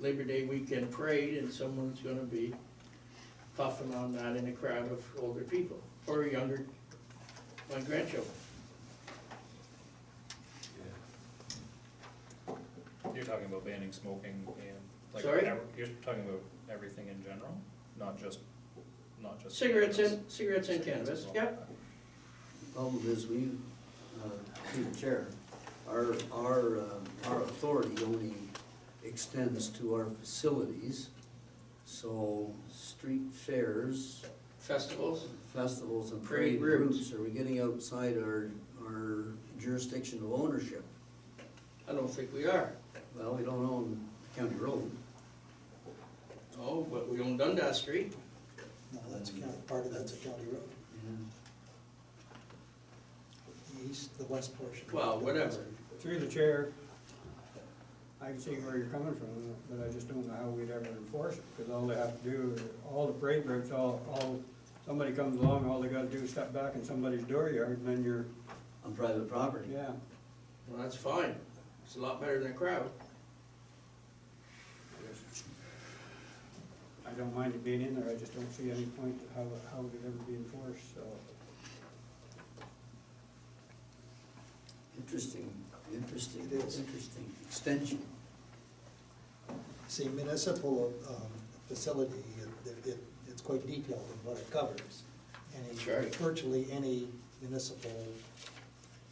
Labor Day weekend parade, and someone's gonna be puffing on that in a crowd of older people, or younger, my grandchildren. You're talking about banning smoking and like. Sorry? ev- You're talking about everything in general, not just, not just. Cigarettes cannabis. and, cigarettes and cannabis, Cigarettes as well. yep, Problem is, we, uh, through the chair, our, our, um, our authority only extends to our facilities. So street fairs, festivals, festivals and Parade parade routes. routes, are we getting outside our, our jurisdiction of ownership? I don't think we are. Well, we don't own county road. Oh, but we own Dundas Street, No, that's a county, part of that's a county road, the east, the west portion. well, whatever. Through the chair, I can see where you're coming from, but I just don't know how we'd ever enforce it, because all they have to do, all the parade routes, all, all, somebody comes along, all they gotta do is step back in somebody's dooryard, and then you're, On private property. yeah. Well, that's fine, it's a lot better than a crowd. I don't mind it being in there, I just don't see any point to how, how it could ever be enforced, so. Interesting, interesting, It is. interesting extension. See, municipal, um, facility, it, it, it's quite detailed in what it covers. That's right. Any, virtually any municipal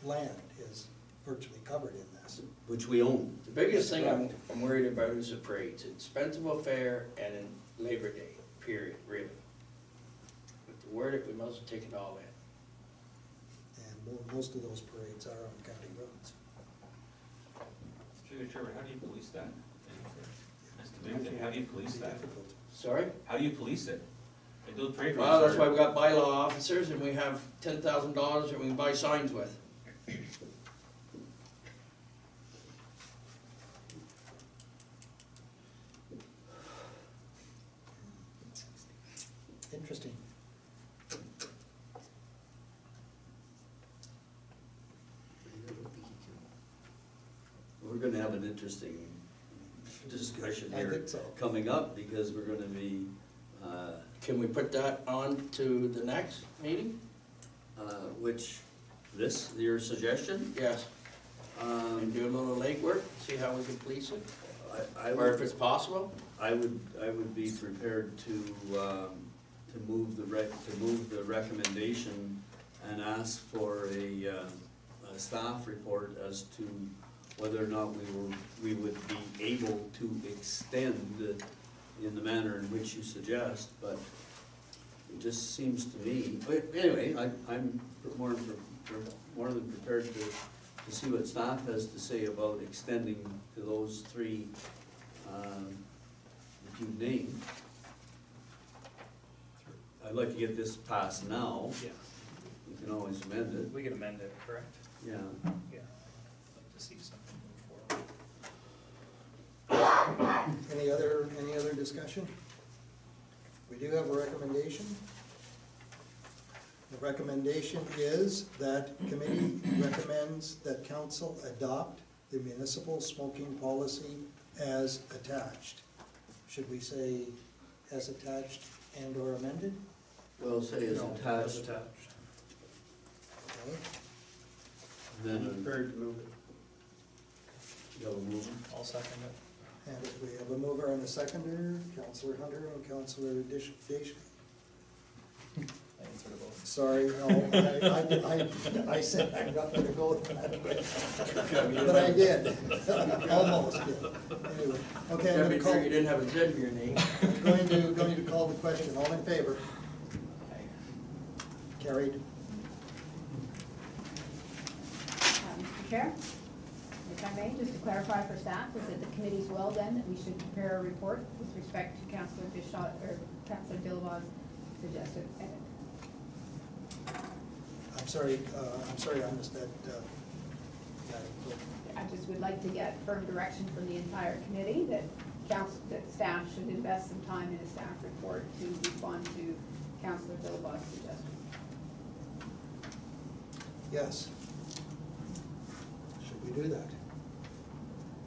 land is virtually covered in this. Which we own. The biggest thing I'm, I'm worried about is the parades, it's Spencerville Fair and in Labor Day, period, really. With the word, we must take it all in. And mo- most of those parades are on county roads. Through the chair, how do you police that? That's the big Actually, thing, how do you police that? Difficult. Sorry? How do you police it? They do parade Well, that's routes why are, we got bylaw officers and we have ten thousand dollars that we can buy signs with. Interesting. We're gonna have an interesting discussion I here think so. coming up, because we're gonna be, uh, Can we put that on to the next meeting? uh, which, this, your suggestion? Yes, and Um, do a little legwork, see how we can police it, I, I or if would, it's possible. I would, I would be prepared to, um, to move the rec, to move the recommendation and ask for a, uh, a staff report as to whether or not we were, we would be able to extend in the manner in which you suggest, but it just seems to me, but anyway, I, I'm more than, pre- pre- more than prepared to, to see what staff has to say about extending to those three, um, that you've named. I'd like to get this passed now, Yeah, you can always amend it, we can amend it, correct? yeah. Yeah. I'd Like to see something move forward. Any other, any other discussion? We do have a recommendation. The recommendation is that committee recommends that council adopt the municipal smoking policy as attached. Should we say as attached and or amended? Well, say it's No, it's attached, Attached. Okay, I'm then prepared to move it. you have a motion. I'll second it. And if we have a mover and a seconder, Counselor Hunter and Counselor Dish, Dish, I can sort of both. Sorry, no, I, I, I, I said I'm not gonna go that way. But I did, almost did, anyway. Okay, That'd I'm be gonna true, you call, didn't have a Z in your name. going to, going to call the question, all in favor? Carried. Um, Mr. Chair, if I may, just to clarify for staff, is that the committee's will then, that we should prepare a report with respect to Councillor Bishaw, or Councillor Dillaba's suggested edit. I'm sorry, uh, I'm sorry, I missed that, uh, that. I just would like to get firm direction from the entire committee that council, that staff should invest some time in a staff report to respond to Councillor Dillaba's suggestion. Yes. Should we do that?